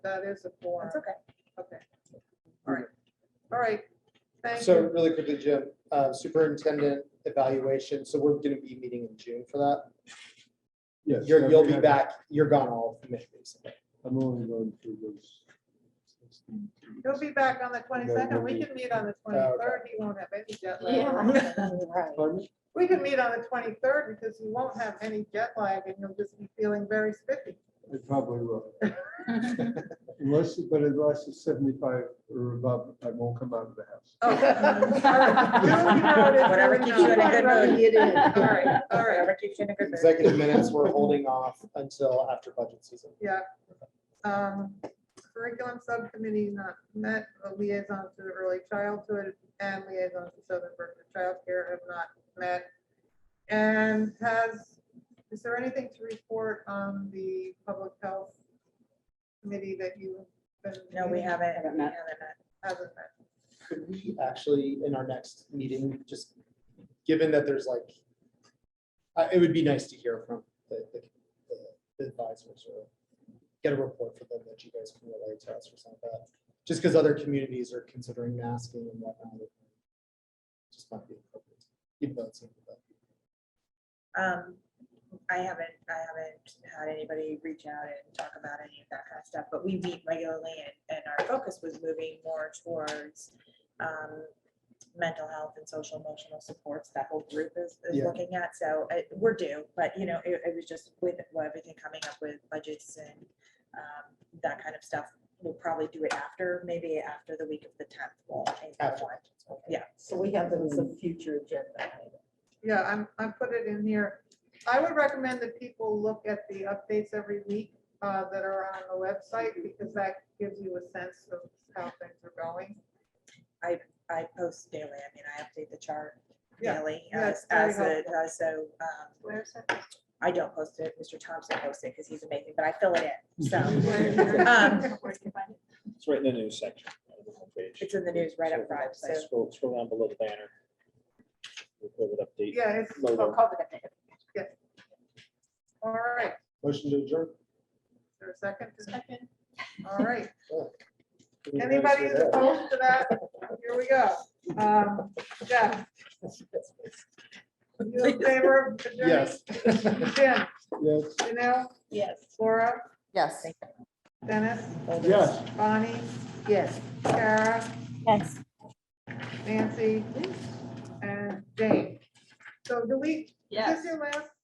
That is a forum. That's okay. Okay. All right. All right. Thank So you. really quickly, Jim, uh, superintendent evaluation, so we're gonna be meeting in June for that. Yes. You're, you'll be I- back, you're gone all of May, basically. I'm only going through those. He'll be back on the twenty-second. We can meet on the twenty-third. He won't have any jet lag. Right. Pardon me? We can meet on the twenty-third because he won't have any jet lag and he'll just be feeling very spiffy. I probably will. Unless, but unless it's seventy-five or above, I won't come out of the house. Whatever Oh. Whatever keeps you in a good mood. It is. All right, all right. Whatever keeps you in a good mood. Executive minutes, we're holding off until after budget season. Yeah. Um, Curriculum subcommittee not met, the liaison to the early childhood and liaison to Southern Berkshire Child Care have not met. And has, is there anything to report on the public health committee that you? No, we haven't. Haven't met. Hasn't met. Could we actually, in our next meeting, just, given that there's like, uh, it would be nice to hear from the, the- the advisors or get a report from them that you guys can relay to us or something like that. Just because other communities are considering masking and whatnot. it Just might be appropriate. even though it's- Um, I haven't, I haven't had anybody reach out and talk about any of that kind of stuff, but we meet regularly and, and our focus was moving more towards um, mental health and social emotional supports that whole group is, is Yeah. looking at. So uh, we're due, but you know, it, it was just with well, everything coming up with budgets and um, that kind of stuff. We'll probably do it after, maybe after the week of the tenth. We'll change that After. one. Yeah. So we have them as a future agenda. item. Yeah, I'm, I put it in here. I would recommend that people look at the updates every week uh, that are on the website because that gives you a sense of how things are going. I post daily. I mean, I update the chart Yeah. daily Yeah, as, it's very as, a- helpful. as so, um, I don't post it, Mr. Thompson posts it because he's amazing, but I fill it in, so. Um, It's right in the news section. of the homepage. It's in the news right up Scroll- front, so. Scroll, scroll down below the banner. We put it update. Yeah, it's, logo. all right. Is Motion to adjourn. there a second? Second. All right. Oh. Give me a minute Anybody to is do that. opposed to that? Here we go. Um, Jeff? You in favor of adjournment? Yes. Jim, Yes. Janelle, Yes. Laura, Yes. Dennis, Yes. Bonnie, Yes. Kara, Yes. Nancy, and Jane. So do we, is this your last